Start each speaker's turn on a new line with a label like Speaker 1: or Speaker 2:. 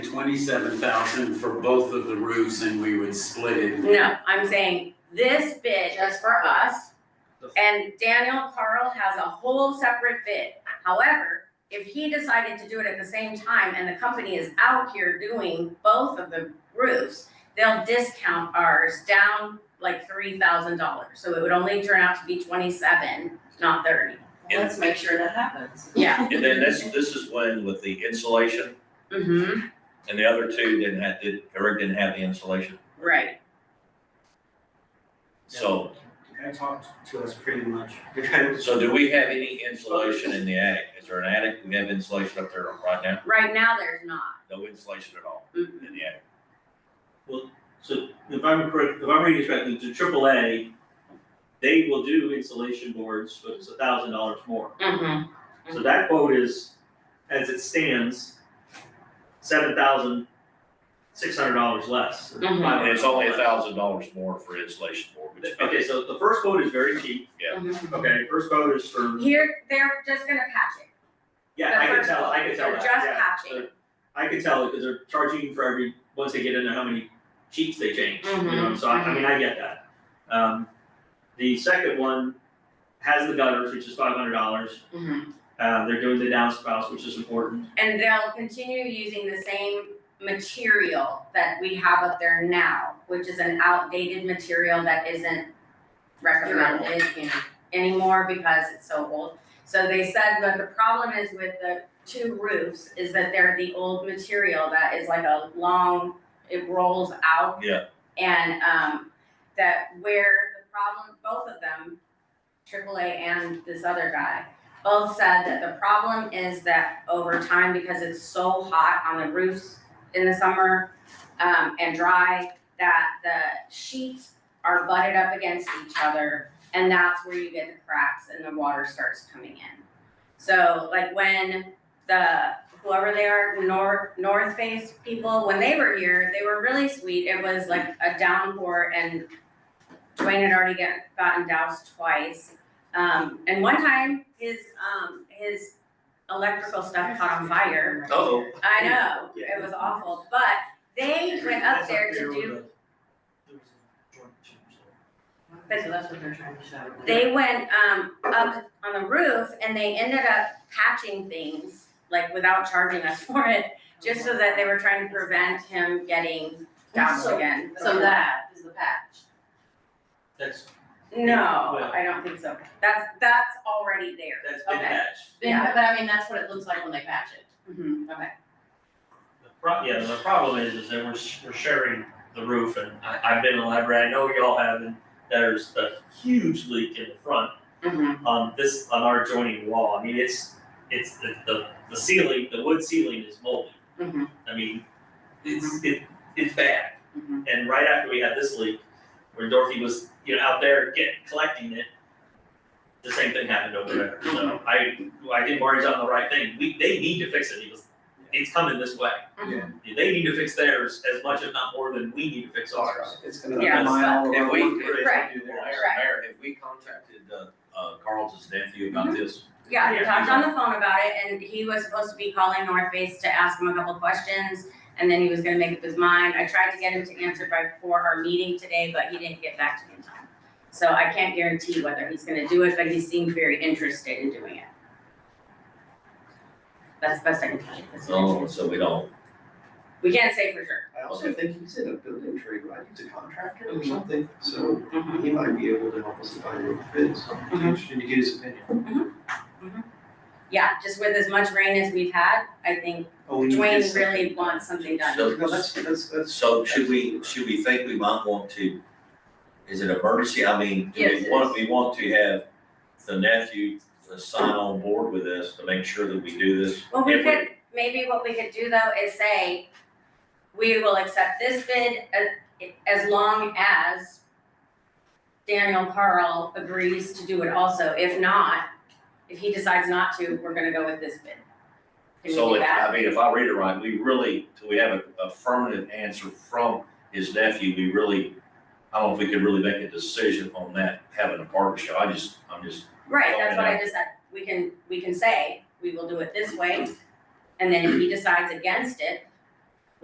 Speaker 1: twenty-seven thousand for both of the roofs and we would split it.
Speaker 2: No, I'm saying this bid is for us, and Daniel Carl has a whole separate bid. However, if he decided to do it at the same time and the company is out here doing both of the roofs, they'll discount ours down like three thousand dollars, so it would only turn out to be twenty-seven, not thirty.
Speaker 3: Let's make sure that happens.
Speaker 2: Yeah,
Speaker 4: And then this, this is when with the insulation,
Speaker 2: mm-hmm,
Speaker 4: and the other two didn't have, did, Eric didn't have the insulation,
Speaker 2: right.
Speaker 4: so,
Speaker 5: The guy talked to us pretty much. The guy was-
Speaker 4: so do we have any insulation in the attic? Is there an attic, we have insulation up there right now?
Speaker 2: Right now, there's not.
Speaker 4: No insulation at all
Speaker 2: Mhm.
Speaker 4: in the attic,
Speaker 6: So if I'm correct, if I'm reading this correctly, the triple A, they will do insulation boards, but it's a thousand dollars more.
Speaker 2: Mm-hmm,
Speaker 6: So that quote is, as it stands, seven thousand six hundred dollars less.
Speaker 2: Mhm.
Speaker 4: and it's only a thousand dollars more for insulation board, which.
Speaker 6: Okay, so the first quote is very cheap, okay, first quote is for,
Speaker 2: Here, they're just gonna patch it.
Speaker 6: yeah,
Speaker 2: The
Speaker 6: I can
Speaker 2: first
Speaker 6: tell, I
Speaker 2: quote,
Speaker 6: can tell
Speaker 2: they're
Speaker 6: that,
Speaker 2: just
Speaker 6: yeah.
Speaker 2: patching.
Speaker 6: So I can tell because they're charging for every, once they get into how many sheets they change, you know,
Speaker 2: Mhm,
Speaker 6: so I, I mean, I get that. Um, the second one has the gutters, which is five hundred dollars.
Speaker 2: Mhm.
Speaker 6: Uh, they're doing the downspouts, which is important.
Speaker 2: And they'll continue using the same material that we have up there now, which is an outdated material that isn't recommended you know, anymore because it's so old. So they said that the problem is with the two roofs is that they're the old material that is like a long, it rolls out.
Speaker 4: Yeah.
Speaker 2: And um that where the problem, both of them, AAA and this other guy, both said that the problem is that over time, because it's so hot on the roofs in the summer um, and dry, that the sheets are butted up against each other, and that's where you get the cracks and the water starts coming in. So like when the whoever they are, North North Face people, when they were here, they were really sweet. It was like a downpour and Dwayne had already get, gotten doused twice. Um, and one time, his, um, his electrical stuff caught on fire.
Speaker 4: Oh,
Speaker 2: I know, it was awful, but they went up there to do,
Speaker 5: There was a joint change there.
Speaker 3: So that's what they're trying to show.
Speaker 2: they went, um, up on the roof and they ended up patching things, like without charging us for it, just so that they were trying to prevent him getting doused
Speaker 3: So-
Speaker 2: again.
Speaker 3: So that is the patch.
Speaker 6: That's,
Speaker 2: No, I don't think so. That's, that's already there.
Speaker 6: that's been
Speaker 2: Okay.
Speaker 6: patched.
Speaker 2: Yeah.
Speaker 3: But I mean, that's what it looks like when they patch it.
Speaker 2: Mhm.
Speaker 6: The pro- yeah, the problem is, is that we're, sh- we're sharing the roof and I, I've been in the library, I know y'all have, and there's a huge leak in the front.
Speaker 2: Mhm.
Speaker 6: on this, on our joining wall, I mean, it's, it's the, the, the ceiling, the wood ceiling is moldy.
Speaker 2: Mhm.
Speaker 6: I mean, it's, it, it's bad.
Speaker 2: Mhm.
Speaker 6: And right after we had this leak, where Dorothy was, you know, out there getting, collecting it, the same thing happened over there, so I, I think Marty's on the right thing, we, they need to fix it, he was, it's coming this way.
Speaker 5: Yeah.
Speaker 6: They need to fix theirs as much, if not more, than we need to fix ours.
Speaker 5: It's gonna
Speaker 2: Yeah,
Speaker 5: undermine all of
Speaker 4: so-
Speaker 5: our
Speaker 4: If we-
Speaker 5: work that
Speaker 2: Right.
Speaker 5: do there.
Speaker 4: Mayor, Mayor, have we contacted, uh, uh, Carlton's nephew about this?
Speaker 2: Yeah, we
Speaker 6: Yeah.
Speaker 2: talked on the phone about it and he was supposed to be calling North Face to ask him a couple questions. And then he was gonna make up his mind. I tried to get him to answer by before our meeting today, but he didn't get back to me in time. So I can't guarantee whether he's gonna do it, but he seemed very interested in doing it. That's the best I can tell you. That's the
Speaker 4: So,
Speaker 2: best.
Speaker 4: so we don't,
Speaker 2: We can't say for sure.
Speaker 5: I also think he's in a building trade, right? He's a contractor or something, so
Speaker 2: Mhm.
Speaker 5: he might be able to help us find what fits.
Speaker 2: Mhm.
Speaker 5: Interesting to get his opinion.
Speaker 2: Yeah, just with as much rain as we've had, I think
Speaker 5: Oh, we need to get
Speaker 2: Dwayne
Speaker 5: some-
Speaker 2: really wants something done.
Speaker 4: So-
Speaker 5: No, that's, that's, that's.
Speaker 4: so should we, should we think we might want to, is it emergency? I mean, do
Speaker 2: Yes,
Speaker 4: we
Speaker 2: it
Speaker 4: want,
Speaker 2: is.
Speaker 4: we want to have the nephew uh, sign on board with us to make sure that we do this?
Speaker 2: Well, we
Speaker 4: If
Speaker 2: could, maybe what we could do though is say, we will accept this bid as, as long as Daniel Carl agrees to do it also. If not, if he decides not to, we're gonna go with this bid. Can
Speaker 4: So
Speaker 2: we do
Speaker 4: if,
Speaker 2: that?
Speaker 4: I mean, if I read it right, we really, till we have a affirmative answer from his nephew, we really, I don't know if we could really make a decision on that, having a partnership. I just, I'm just,
Speaker 2: Right, that's what
Speaker 4: Yeah.
Speaker 2: I just said. We can, we can say, we will do it this way. And then if he decides against it,